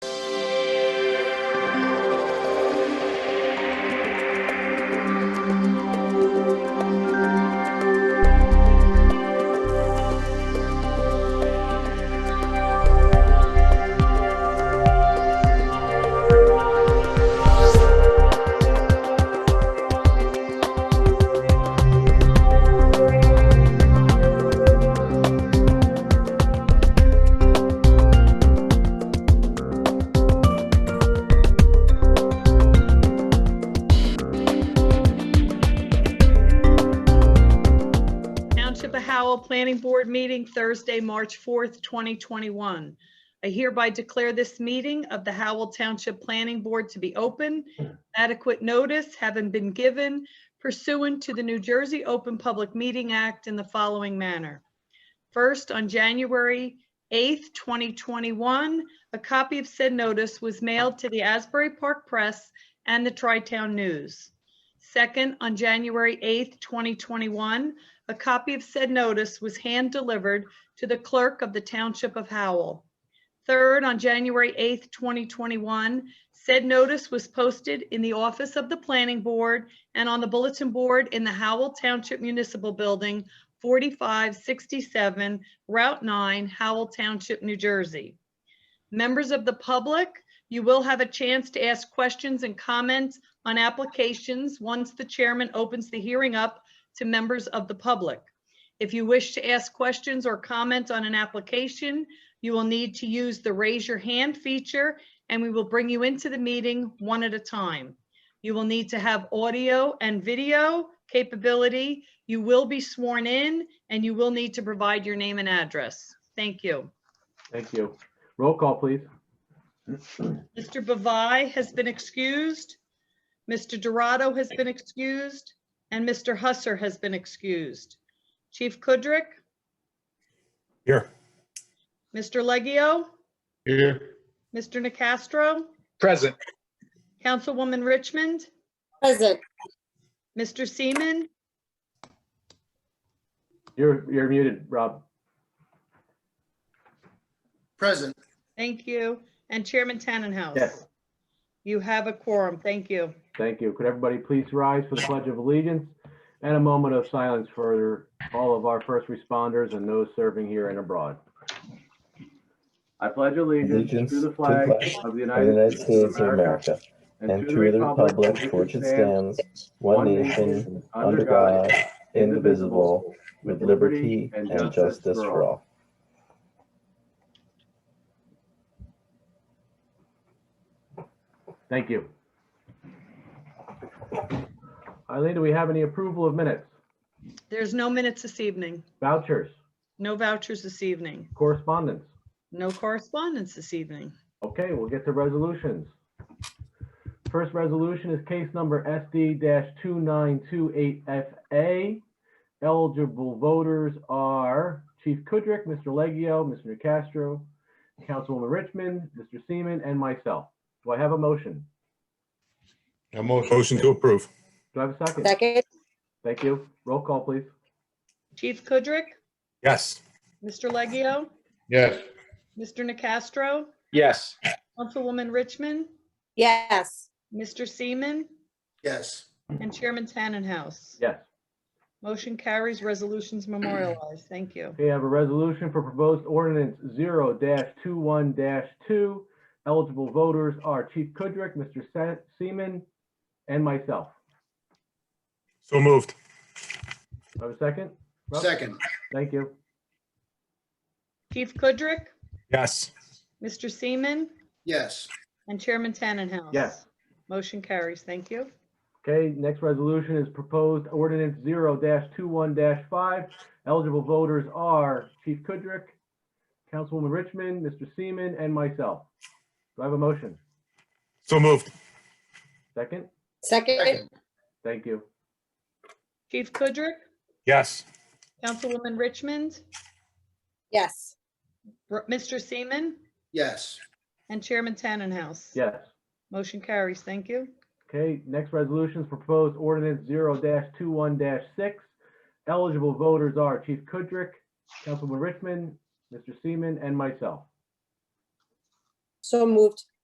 Call Planning Board meeting Thursday, March 4th, 2021. I hereby declare this meeting of the Howell Township Planning Board to be open. Adequate notice having been given pursuant to the New Jersey Open Public Meeting Act in the following manner. First, on January 8th, 2021, a copy of said notice was mailed to the Asbury Park Press and the Tri-Town News. Second, on January 8th, 2021, a copy of said notice was hand-delivered to the clerk of the Township of Howell. Third, on January 8th, 2021, said notice was posted in the office of the Planning Board and on the bulletin board in the Howell Township Municipal Building, 4567 Route 9, Howell Township, New Jersey. Members of the public, you will have a chance to ask questions and comments on applications once the chairman opens the hearing up to members of the public. If you wish to ask questions or comment on an application, you will need to use the raise your hand feature and we will bring you into the meeting one at a time. You will need to have audio and video capability. You will be sworn in and you will need to provide your name and address. Thank you. Thank you. Roll call, please. Mr. Bavai has been excused. Mr. Dorado has been excused, and Mr. Husser has been excused. Chief Kudrick, Here. Mr. Leggio, Here. Mr. Nacastro, Present. Councilwoman Richmond, Present, Mr. Seaman, You're, you're muted, Rob. Present, thank you, and Chairman Tannenhouse. Yes. You have a quorum. Thank you. Thank you. Could everybody please rise for the Pledge of Allegiance and a moment of silence for all of our first responders and those serving here and abroad? I pledge allegiance to the flag of the of the United United States of America, and to the republic for which it stands, one nation, under God, indivisible, with liberty and justice for all. Thank you. Eileen, do we have any approval of minutes, There's no minutes this evening, vouchers, no vouchers this evening, correspondence? no correspondence this evening. Okay, we'll get to resolutions. First resolution is case number SD two nine two eight FA. Eligible voters are Chief Kudrick, Mr. Leggio, Mr. Castro, Councilwoman Richmond, Mr. Seaman, and myself. Do I have a motion? A motion. Motion to approve. Do I have a second? second, Thank you. Roll call, please. Chief Kudrick, Yes. Mr. Leggio, Yes. Mr. Nacastro, Yes. Councilwoman Richmond, yes, Mr. Seaman, yes, and Chairman Tannenhouse. Yes. Motion carries, resolutions memorialized. Thank you. We have a resolution for proposed ordinance zero 21 two. Eligible voters are Chief Kudrick, Mr. Se- Seaman, and myself. So moved. Do I have a second? Rob? second, Thank you. Chief Kudrick, Yes. Mr. Seaman, yes, and Chairman Tannenhouse. Yes. Motion carries, thank you. Okay, next resolution is proposed ordinance zero 21 five. Eligible voters are Chief Kudrick, Councilwoman Richmond, Mr. Seaman, and myself. Do I have a motion? So moved. Second? second, second, Thank you. Chief Kudrick, Yes. Councilwoman Richmond, yes, R- Mr. Seaman, yes, and Chairman Tannenhouse. Yes. Motion carries, thank you. Okay, next resolution is proposed ordinance zero 21 six. Eligible voters are Chief Kudrick, Councilwoman Richmond, Mr. Seaman, and myself. so moved,